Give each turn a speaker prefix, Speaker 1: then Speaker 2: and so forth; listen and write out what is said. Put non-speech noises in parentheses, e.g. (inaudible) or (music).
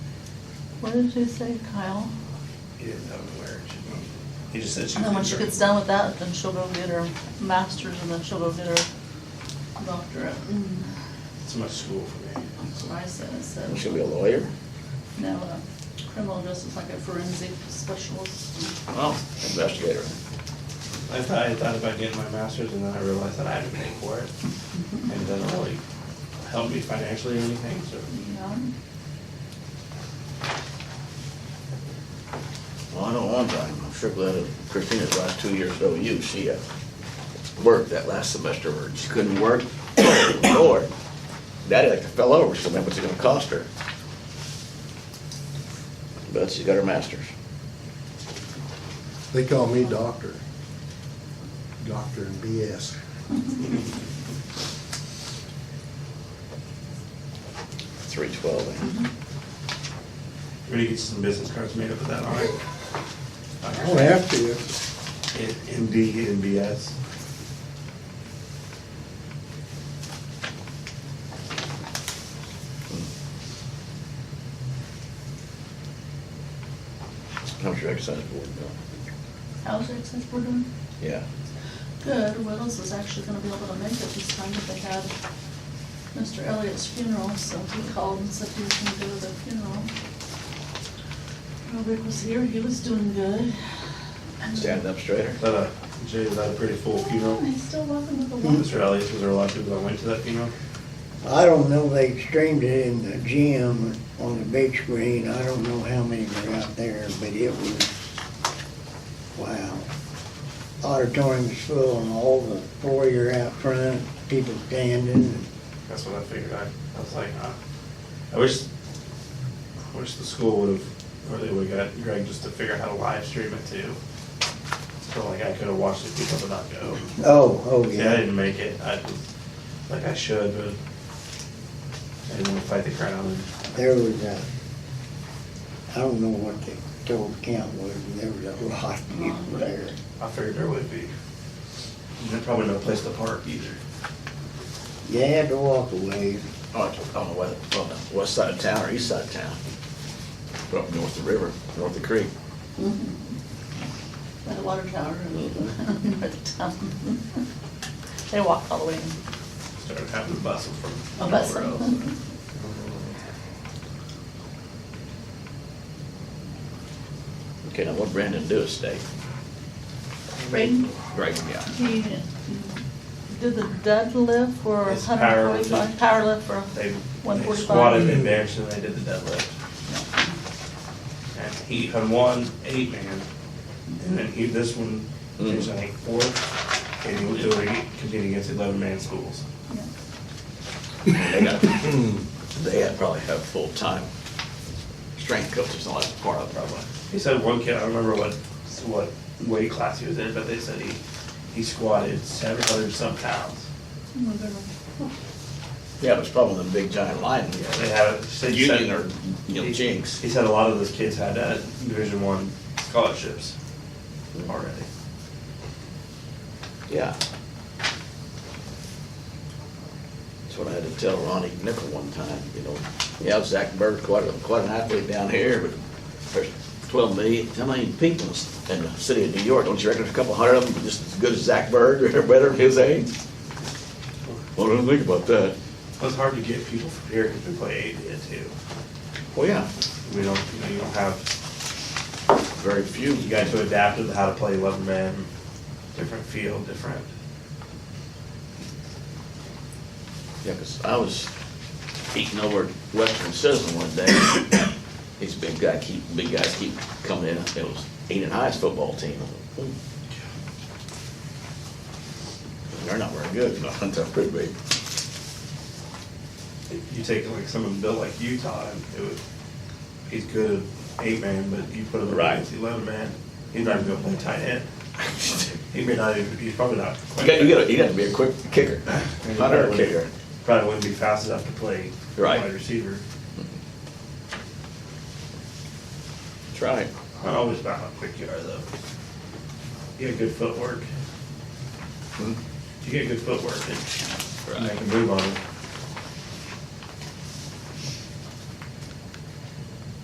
Speaker 1: What did you say, Kyle?
Speaker 2: He didn't know where it should be. He just said she
Speaker 1: And
Speaker 2: was.
Speaker 1: then when she gets done with that, then she'll go get her master's and then she'll go get her doctorate. And
Speaker 2: It's much school for me.
Speaker 1: That's what I said, I
Speaker 3: You
Speaker 1: said,
Speaker 3: should be a lawyer.
Speaker 1: no, uh, criminal justice, like a forensic specialist.
Speaker 3: Well. Investigator.
Speaker 2: I thought, I thought about getting my master's and then I realized that I had to pay for it. And it doesn't really help me financially or anything, so.
Speaker 1: Yeah.
Speaker 3: Well, I know one time, I'm sure glad that Christina's last two years of OU, she uh, worked that last semester, or she couldn't work, (coughs) or daddy like to fell over, so that was gonna cost her. But she got her master's.
Speaker 4: They call me doctor. Doctor and BS.
Speaker 3: Three twelve.
Speaker 2: Ready to get some business cards made up with that on it?
Speaker 4: I
Speaker 5: Oh,
Speaker 4: don't have to.
Speaker 2: MD and BS.
Speaker 3: How much your exercise board bill?
Speaker 1: How's it since we're doing?
Speaker 3: Yeah.
Speaker 1: Good, Willis is actually gonna be able to make it this time, but they had Mr. Elliott's funeral, so he called and said he was gonna go to the funeral. Robert was here, he was doing good. And-
Speaker 3: Stand up Oh, straighter.
Speaker 2: Is that a, Jay, is that a pretty full
Speaker 1: Yeah,
Speaker 2: funeral?
Speaker 1: He's still walking with the one.
Speaker 2: Mr. Elliott, was there a lot of people that went to that funeral?
Speaker 5: I don't know, they streamed it in the gym on the big screen, I don't know how many were out there, but it was, wow. Auditorium was full and all the foyer out front, people standing.
Speaker 2: That's what I figured. I, I was like, uh, I wish, I wish the school would have, or they would have got Greg just to figure out how to live stream it too. So like I could have watched the people but not go.
Speaker 5: Oh, oh,
Speaker 2: Yeah, I
Speaker 5: yeah.
Speaker 2: didn't make it. I was, like I should, but I didn't want to fight the crowd and
Speaker 5: There was a, I don't know what the total count was, but there was a lot of people there.
Speaker 2: I figured there would be. And there's probably no place to park either.
Speaker 5: You had to walk away.
Speaker 3: Oh, it's on the west, on the west side of town or east side of town. But Up north of the river, north of the creek.
Speaker 1: Mm-hmm. By the water tower. (laughs) by the town. (laughs) They walked all the way. in.
Speaker 2: Started having to bustle from
Speaker 1: A bustle.
Speaker 2: nowhere
Speaker 1: (laughs)
Speaker 2: else.
Speaker 3: Okay, now what Brandon do is stay.
Speaker 1: Braden,
Speaker 3: Right, yeah.
Speaker 1: he did the deadlift for
Speaker 2: It's
Speaker 1: hundred forty-five, power lift for, (laughs)
Speaker 2: They they
Speaker 1: 145.
Speaker 2: squatted in bench and they did the deadlift. And he had won eight man, and then he, this one finished, I think, fourth, and he was doing, competing against eleven man schools.
Speaker 1: yeah.
Speaker 3: They got, they had probably have full-time strength coaches, and all that's part of it, probably.
Speaker 2: He said one kid, I don't remember what, what weight class he was in, but they said he, he squatted seven hundred some pounds.
Speaker 1: Oh, they're-
Speaker 3: Yeah, but it's probably the big giant line.
Speaker 2: They had, they said.
Speaker 3: Union or, you know,
Speaker 2: He-
Speaker 3: Jinx.
Speaker 2: He said a lot of those kids had uh, Division One scholarships already.
Speaker 3: Yeah. That's what I had to tell Ronnie Nickel one time, you know, yeah, Zach Bird's quite, a- quite an athlete down here, but there's twelve million, how many people in s- in the city of New York? Don't you reckon there's a couple hundred of them just as good as Zach Bird or (laughs) better than his age? Well, I don't think about that.
Speaker 2: It was hard to get people from here because we play ADA too.
Speaker 3: Well, yeah,
Speaker 2: We don't, you know, you don't have,
Speaker 3: very few.
Speaker 2: you got to adapt to how to play eleven man, different field, different.
Speaker 3: Yeah, 'cause I was eating over at Western Citizen one day. These big guy keep, big guys keep coming in. It was Eden High's football team. They're not very good, but they're pretty big.
Speaker 2: If You take like someone built like Utah and it would, he's good at eight man, but you put him
Speaker 3: Right.
Speaker 2: against eleven man, he's not even gonna play tight end. He may not even, he's probably not.
Speaker 3: You got, you got, you got to be a quick kicker, not a kicker.
Speaker 2: Probably wouldn't be fast enough to play
Speaker 3: Right.
Speaker 2: wide receiver.
Speaker 3: That's right.
Speaker 2: Not always about how quick you are though. You got
Speaker 3: Hmm?
Speaker 2: good footwork. You get good footwork and you
Speaker 3: Right.
Speaker 2: can move on it.